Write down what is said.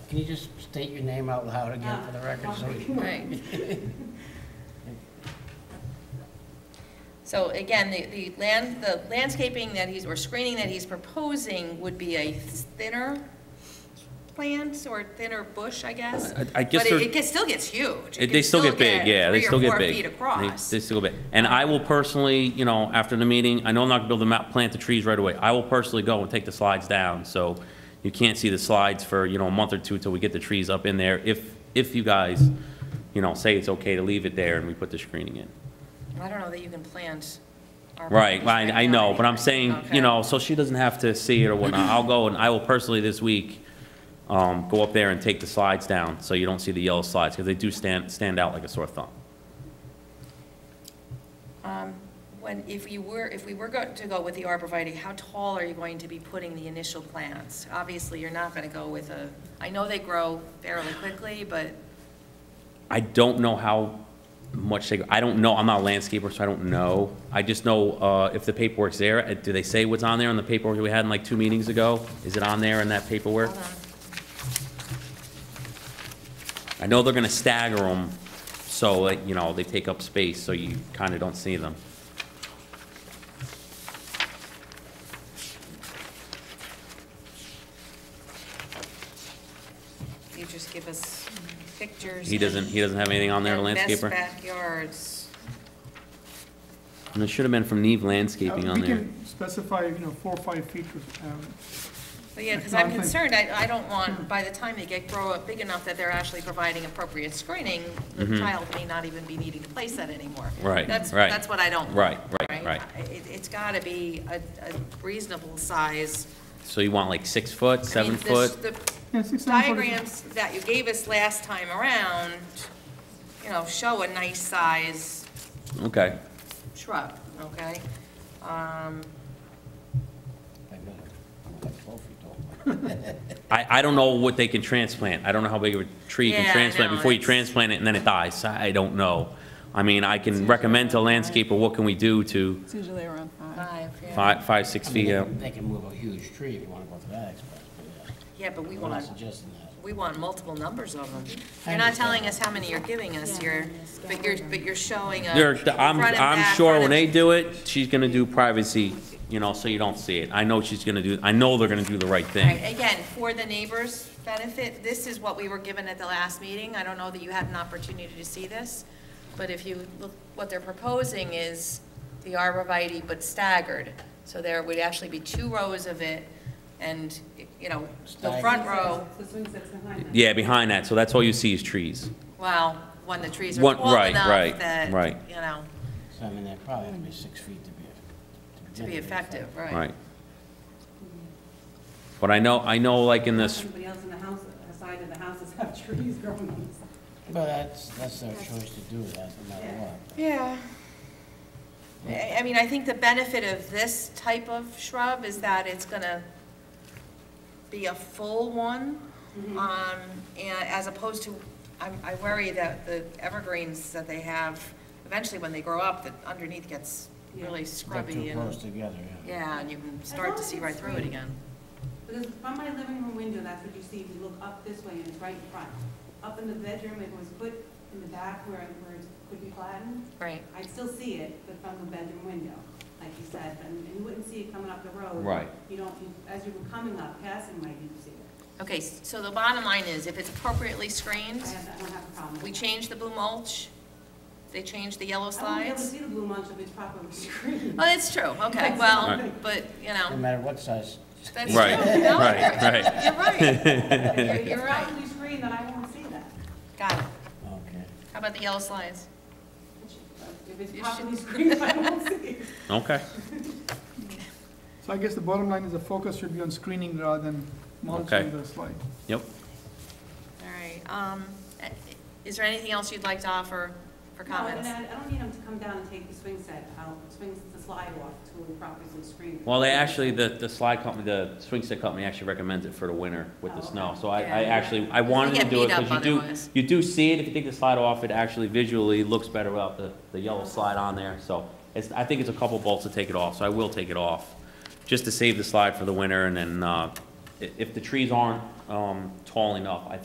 Can you just state your name out loud again Uh, for the record? so we- Right. So again, the, the land, the landscaping that he's, or screening that he's proposing would be a thinner plant or thinner bush, I guess. I- I guess But there's- it, it gets- still gets huge. It It- They can still get big, yeah, they still get big. Three or They- four feet across. They still get big. And I will personally, you know, after the meeting, I know I'm not gonna build them out, plant the trees right away. I will personally go and take the slides down, so you can't see the slides for, you know, a month or two till we get the trees up in there, if, if you guys, you know, say it's okay to leave it there and we put the screening in. I don't know that you can plant. our Right, bush I, I now know, but I'm anyway. saying, Okay. you know, so she doesn't have to see it or whatnot. I'll go and I will personally this week, um, go up there and take the slides down, so you don't see the yellow slides, because they do stand, stand out like a sore thumb. When, if you were, if we were go- to go with the arborvitae, how tall are you going to be putting the initial plants? Obviously, you're not gonna go with a, I know they grow fairly quickly, but I don't know how much they, I don't know, I'm not a landscaper, so I don't know. I just know, uh, if the paperwork's there, uh, do they say what's on there on the paperwork we had in like two meetings ago? Is it on there in that paperwork? hold on. I know they're gonna stagger them, so that, you know, they take up space, so you kinda don't see them. You just give us pictures. He doesn't, he doesn't have anything on there, the and best landscaper? backyards. And it should have been from Neve Landscaping Uh, on We there. can specify, you know, four or five feet. um, But yeah, because No, I'm I'm fine. concerned, I, I don't want, by the time they get, grow up big enough that they're actually providing appropriate screening, the child may not even be needing to place that anymore. Mm-hmm. Right, That's, right. that's what I don't want. Right, right, right. I- It, it's gotta be a, a reasonable size. So you want like six foot, I mean, seven this- foot? The yeah, six, seven, four is- diagrams that you gave us last time around, you know, show a nice size Okay, shrub, okay? Um, I know. I'm like 12 feet tall. I, I don't know what they can transplant. I don't know how big of a tree you Yeah, can I transplant know, before you it's- transplant it and then it dies. I I don't know. I mean, I can recommend to a landscaper, what can we do to It's usually around five. five, yeah. five, five, six I mean, feet they out? can- They can move a huge tree if you want to go to that expense, but yeah. Yeah, but we I'm not want, suggesting that. we want multiple numbers of them. I You're not understand. telling us how many you're giving us Yeah, here, yeah, but you're, but you're showing a There, front I'm, and I'm back, sure front when they and- do it, she's gonna do privacy, you know, so you don't see it. I know she's gonna do, I know they're gonna do the right thing. Right, Again, for the neighbors' benefit, this is what we were given at the last meeting. I don't know that you had an opportunity to see this, but if you look, what they're proposing is the arborvitae, but staggered. So there would actually be two rows of it, and, you know, the front row, The swing set's behind them. Yeah, behind that, so that's all you see is trees. well, when the trees are One- tall right, enough right, that, right. you know, So I mean, they probably have to be six feet to be. to be really effective, right? Right. But I know, I know like in this, Everybody else in the house, the side of the houses have trees growing on them. Mm-hmm. Well, that's, that's their choice to do that, no matter what. Yeah. I, I mean, I think the benefit of this type of shrub is that it's gonna be a full one. Mm-hmm. Uh, Um, and as opposed to, I'm, I worry that the evergreens that they have, eventually when they grow up, that underneath gets really They're scrubby too close and, together, yeah. uh, yeah, and you can start to see right through it again. Because from my living room window, that's what you see if you look up this way and it's right in front. Up in the bedroom, if it was put in the back where, where it could be flattened, Right. I'd still see it, but from the bedroom window, like you said, and and you wouldn't see it coming up the road. Right. You don't, you- as you were coming up, passing might you see it. Okay, s- so the bottom line is, if it's appropriately screened, I have, I don't have a problem. with we that. change the blue mulch, they change the I yellow won't be able to slides. see the blue munch if it's properly screened. Well, it's true, okay, All well, right. but, you No know, matter what size. that's true. right, No, right, right. You're right. You're- If You're it's right. properly screened, then I won't see that. Got it. Okay. How about the yellow slides? If it's You properly screened, I won't see it. Okay, So I guess the bottom line is the focus should be on screening rather than Okay. monitoring the slide. yep. All right, um, eh, is there anything else you'd like to offer for No, and comments? I I don't need them to come down and take the swing set out, swings the slide off to a proper screen. Well, they actually, the, the slide company, the swing set company actually recommends it for the winter with the Oh, snow. okay. So I, I Yeah. actually, I wanted to get do it beat up because you do, otherwise. you do see it. If you take the slide off, it actually visually looks better without the, the yellow slide on there. So it's, I think it's a couple bolts to take it off, so I will take it off, just to save the slide for the winter. And then, uh, i- if the trees aren't, um, tall enough, I